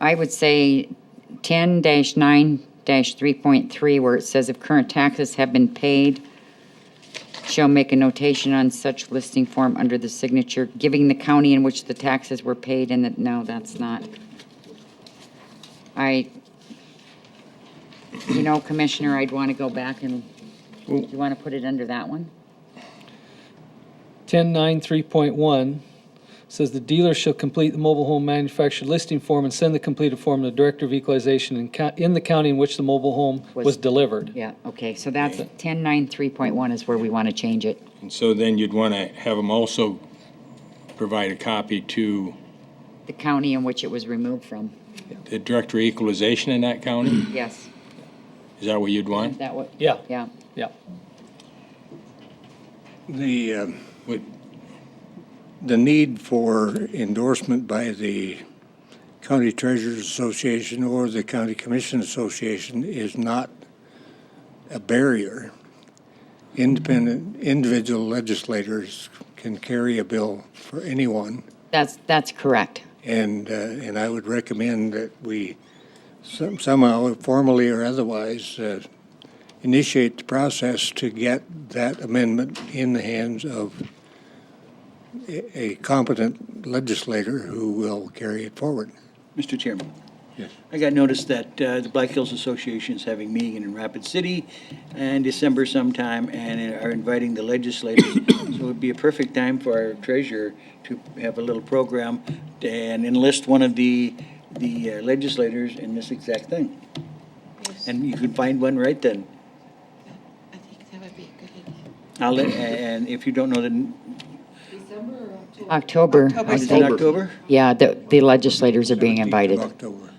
I would say ten nine three point three, where it says if current taxes have been paid, shall make a notation on such listing form under the signature, giving the county in which the taxes were paid, and that, no, that's not. I, you know, Commissioner, I'd want to go back and, do you want to put it under that one? Ten nine three point one says the dealer shall complete the mobile home manufactured listing form and send the completed form to the Director of Equalization in co- in the county in which the mobile home Was- was delivered. Yeah, okay, so that's ten nine three point one is where we want to change it. And so then you'd want to have them also provide a copy to The county in which it was removed from, the Director of Equalization in that county? yes, Is that what you'd want? that what, Yeah, yeah. yeah. The, um, Would- the need for endorsement by the County Treasurers Association or the County Commission Association is not a barrier. Independent, individual legislators can carry a bill for anyone. That's, that's correct. And, uh, and I would recommend that we some- somehow, formally or otherwise, uh, initiate the process to get that amendment in the hands of a a competent legislator who will carry it forward. Mr. Chairman, Yes. I got notice that uh, the Black Hills Association is having a meeting in Rapid City in December sometime and are inviting the legislators. So it would be a perfect time for our treasurer to have a little program and enlist one of the, the uh, legislators in this exact thing. And you could find one right then. I think that would be a good idea. I'll let, and if you don't know the, December or October? October, I October. is it think. October? Yeah, the, the legislators are being invited. October.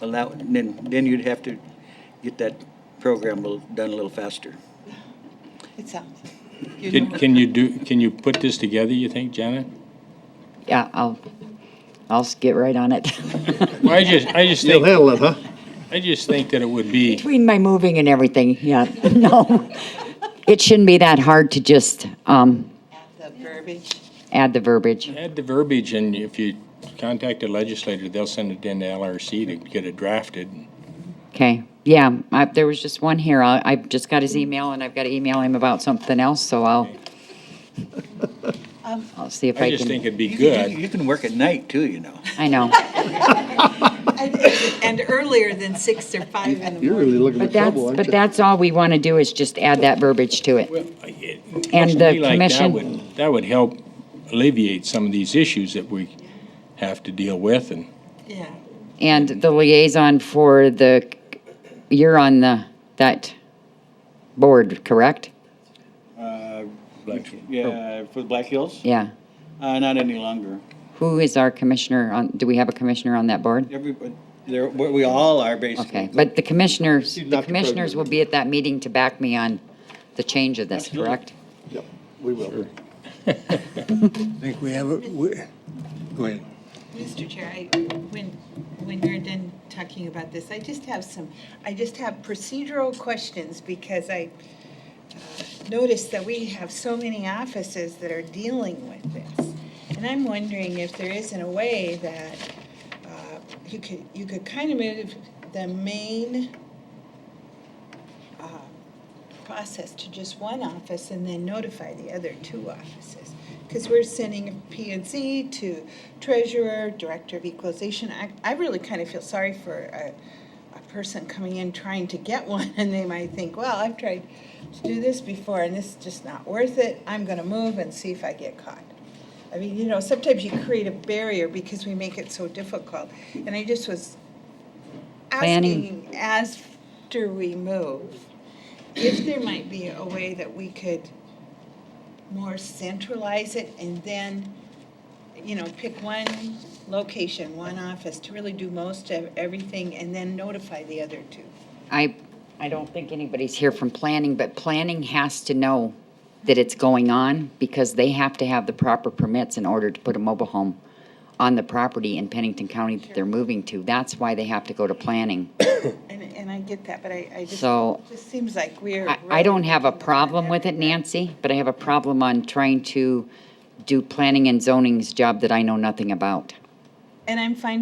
Allow, then, then you'd have to get that program a little- done a little faster. It sounds. Can can you do, can you put this together, you think, Janet? Yeah, I'll, I'll s- get right on it. Well, I just, I just think, handle it, huh? I just think that it would be, Between my moving and everything, yeah, no. It shouldn't be that hard to just, um, The verbiage. add the verbiage. add the verbiage, and if you contact a legislator, they'll send it into LRC to get it drafted. Okay, yeah, I, there was just one here. I, I just got his email and I've got to email him about something else, so I'll, I'll see if I I just think can, it'd be You can- You good. you can work at night too, you know. I know. And and earlier than six or five in the morning. But that's, but that's all we want to do is just add that verbiage to it. And Something the like that commission- would- That would help alleviate some of these issues that we have to deal with, and Yeah. And the liaison for the, you're on the, that board, correct? like, Yeah, for the Black Hills? Oh. Yeah. Uh, not any longer. Who is our commissioner on, do we have a commissioner on that board? Everybody, there, we we all are Okay, basically. but the commissioners, the commissioners will be at that meeting to back me on the change of this, Absolutely. correct? I think we have, a we- go ahead. Mr. Chair, I, when, when you're done talking about this, I just have some, I just have procedural questions because I uh, noticed that we have so many offices that are dealing with this. And I'm wondering if there isn't a way that uh, you could, you could kind of move the main um, process to just one office and then notify the other two offices. Because we're sending P and Z to treasurer, director of equalization. I, I really kind of feel sorry for a, a person coming in trying to get one and they might think, well, I've tried to do this before and this is just not worth it. I'm going to move and see if I get caught. I mean, you know, sometimes you create a barrier because we make it so difficult. And I just was Planning. asking after we move, if there might be a way that we could more centralize it and then, you know, pick one location, one office to really do most of everything and then notify the other two. I, I don't think anybody's here from planning, but planning has to know that it's going on because they have to have the proper permits in order to put a mobile home on the property in Pennington County that they're moving to. That's why they have to go to planning. And, and I get that, but I, I just, So- it just seems like we're. I, I don't have a problem with it, Nancy, but I have a problem on trying to do planning and zoning's job that I know nothing about. And I'm fine